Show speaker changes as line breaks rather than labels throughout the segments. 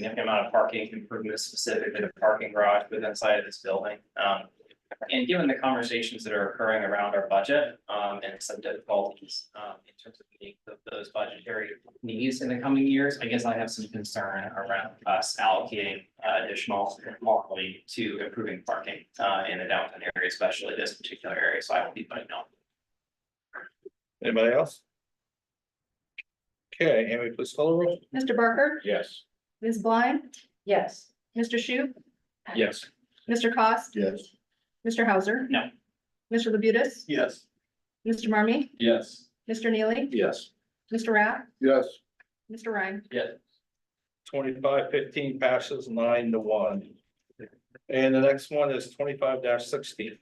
significant amount of parking improvements specifically the parking garage within inside of this building. Um, and given the conversations that are occurring around our budget, um, and some difficulties, um, in terms of meeting th- those budgetary needs in the coming years, I guess I have some concern around us allocating uh, additional monthly to improving parking, uh, in the downtown area, especially this particular area, so I will be voting no.
Anybody else? Okay, Amy, please call the roll.
Mr. Barker,
Yes.
Ms. Blind,
Yes.
Mr. Shu,
Yes.
Mr. Cost,
Yes.
Mr. Hauser.
No.
Mr. Labutus,
Yes.
Mr. Marmy,
Yes.
Mr. Neely,
Yes.
Mr. Rath,
Yes.
Mr. Ryan.
Twenty-five fifteen passes nine to one. And the next one is twenty-five sixteen.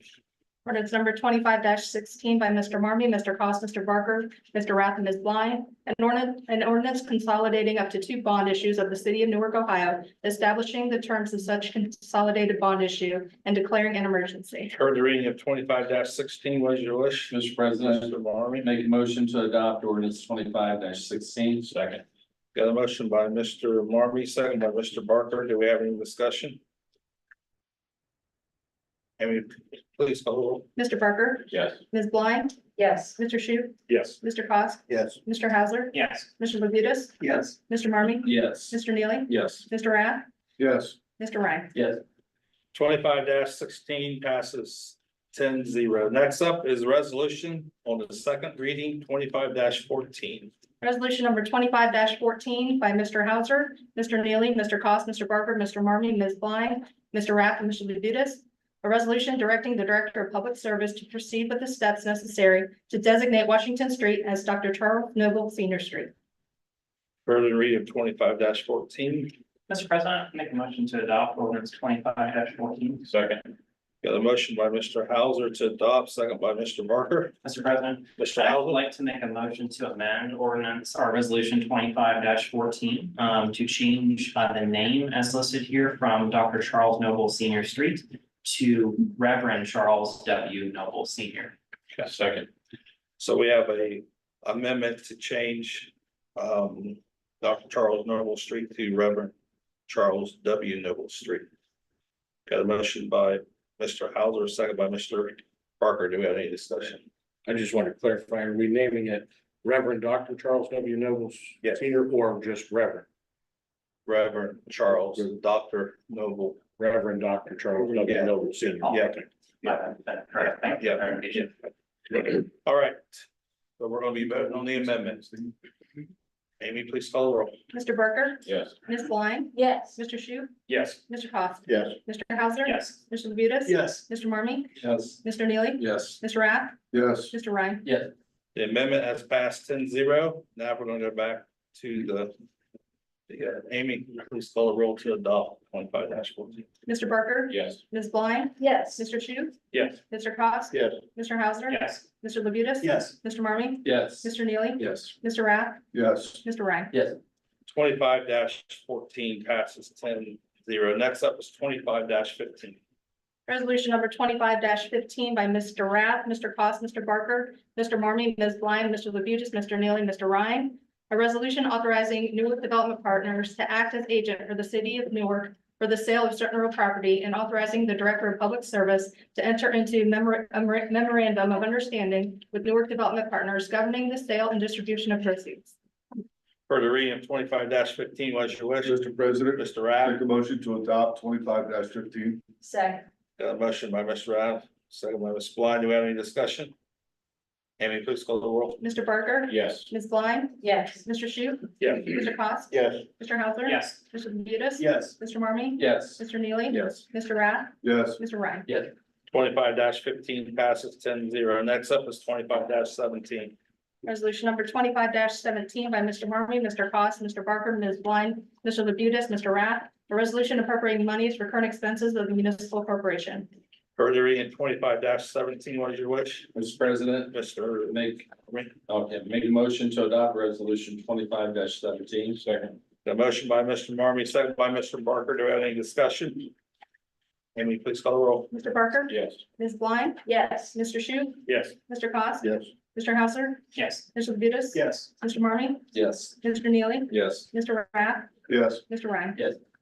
Ordinance number twenty-five sixteen by Mr. Marmy, Mr. Cost, Mr. Barker, Mr. Rath, and Ms. Blind. An ordinance, an ordinance consolidating up to two bond issues of the city of Newark, Ohio, establishing the terms of such consolidated bond issue and declaring an emergency.
Heard the reading of twenty-five sixteen. What is your wish?
Mr. President,
Mr. Marmy,
make a motion to adopt ordinance twenty-five sixteen. Second.
got a motion by Mr. Marmy, second by Mr. Barker. Do we have any discussion? Amy, please call the roll.
Mr. Barker,
Yes.
Ms. Blind,
Yes.
Mr. Shu,
Yes.
Mr. Cost,
Yes.
Mr. Hauser,
Yes.
Mr. Labutus,
Yes.
Mr. Marmy,
Yes.
Mr. Neely,
Yes.
Mr. Rath,
Yes.
Mr. Ryan.
Yes.
Twenty-five sixteen passes 10-0. Next up is resolution on the second reading, twenty-five fourteen.
Resolution number twenty-five fourteen by Mr. Hauser, Mr. Neely, Mr. Cost, Mr. Barker, Mr. Marmy, Ms. Blind, Mr. Rath, and Mr. Labutus. A resolution directing the Director of Public Service to proceed with the steps necessary to designate Washington Street as Dr. Charles Noble Senior Street.
Further reading of twenty-five fourteen.
Mr. President, make a motion to adopt ordinance twenty-five fourteen.
Second. Got a motion by Mr. Hauser to adopt, second by Mr. Barker.
Mr. President,
Mr.
I would
Hauser,
like to make a motion to amend ordinance or resolution twenty-five fourteen um to change uh the name as listed here from Dr. Charles Noble Senior Street to Reverend Charles W. Noble Senior.
Second.
so we have a amendment to change um Dr. Charles Noble Street to Reverend Charles W. Noble Street. Got a motion by Mr. Hauser, second by Mr. Barker. Do we have any discussion?
I just want to clarify, are we naming it Reverend Dr. Charles W. Nobles?
Yes.
Senior or just Reverend,
Reverend Charles, Dr. Noble.
Reverend Dr. Charles
Yeah.
W. Nobles Senior?
Yeah.
Okay.
Yeah, that's correct. Thank you. for clarification.
All right, so we're gonna be voting on the amendments. Amy, please call the roll.
Mr. Barker,
Yes.
Ms. Blind,
Yes.
Mr. Shu,
Yes.
Mr. Cost,
Yes.
Mr. Hauser.
Yes.
Mr. Labutus.
Yes.
Mr. Marmy,
Yes.
Mr. Neely,
Yes.
Mr. Rath,
Yes.
Mr. Ryan.
The amendment has passed 10-0. Now we're gonna go back to the. Yeah, Amy, please call the roll to adopt twenty-five fourteen.
Mr. Barker,
Yes.
Ms. Blind,
Yes.
Mr. Chu,
Yes.
Mr. Cost.
Yes.
Mr. Hauser.
Yes.
Mr. Labutus.
Yes.
Mr. Marmy,
Yes.
Mr. Neely,
Yes.
Mr. Rath,
Yes.
Mr. Ryan.
Twenty-five fourteen passes 10-0. Next up is twenty-five fifteen.
Resolution number twenty-five fifteen by Mr. Rath, Mr. Cost, Mr. Barker, Mr. Marmy, Ms. Blind, Mr. Labutus, Mr. Neely, Mr. Ryan. A resolution authorizing Newark Development Partners to act as agent for the city of Newark for the sale of certain real property and authorizing the Director of Public Service to enter into memor- memor- memorandum of understanding with Newark Development Partners governing the sale and distribution of proceeds.
Further reading of twenty-five fifteen, what is your wish?
Mr. President,
Mr. Rath?
a motion to adopt twenty-five fifteen.
Second.
Got a motion by Mr. Rath, second by Ms. Blind. Do we have any discussion? Amy, please call the roll.
Mr. Barker,
Yes.
Ms. Blind,
Yes.
Mr. Shu,
Yes.
Mr. Cost,
Yes.
Mr. Hauser.
Yes.
Mr. Labutus.
Yes.
Mr. Marmy,
Yes.
Mr. Neely.
Yes.
Mr. Rath,
Yes.
Mr. Ryan.
Twenty-five fifteen passes 10-0. Next up is twenty-five seventeen.
Resolution number twenty-five seventeen by Mr. Marmy, Mr. Cost, Mr. Barker, Ms. Blind, Mr. Labutus, Mr. Rath. A resolution appropriating monies for current expenses of the municipal corporation.
Further reading twenty-five seventeen, what is your wish?
Mr. President,
Mr.
make, okay, make a motion to adopt resolution twenty-five seventeen. Second.
The motion by Mr. Marmy, second by Mr. Barker. Do we have any discussion? Amy, please call the roll.
Mr. Barker,
Yes.
Ms. Blind,
Yes.
Mr. Shu,
Yes.
Mr. Cost,
Yes.
Mr. Hauser,
Yes.
Mr. Labutus.
Yes.
Mr. Marmy,
Yes.
Mr. Neely,
Yes.
Mr. Rath,
Mr. Ryan.
Yes.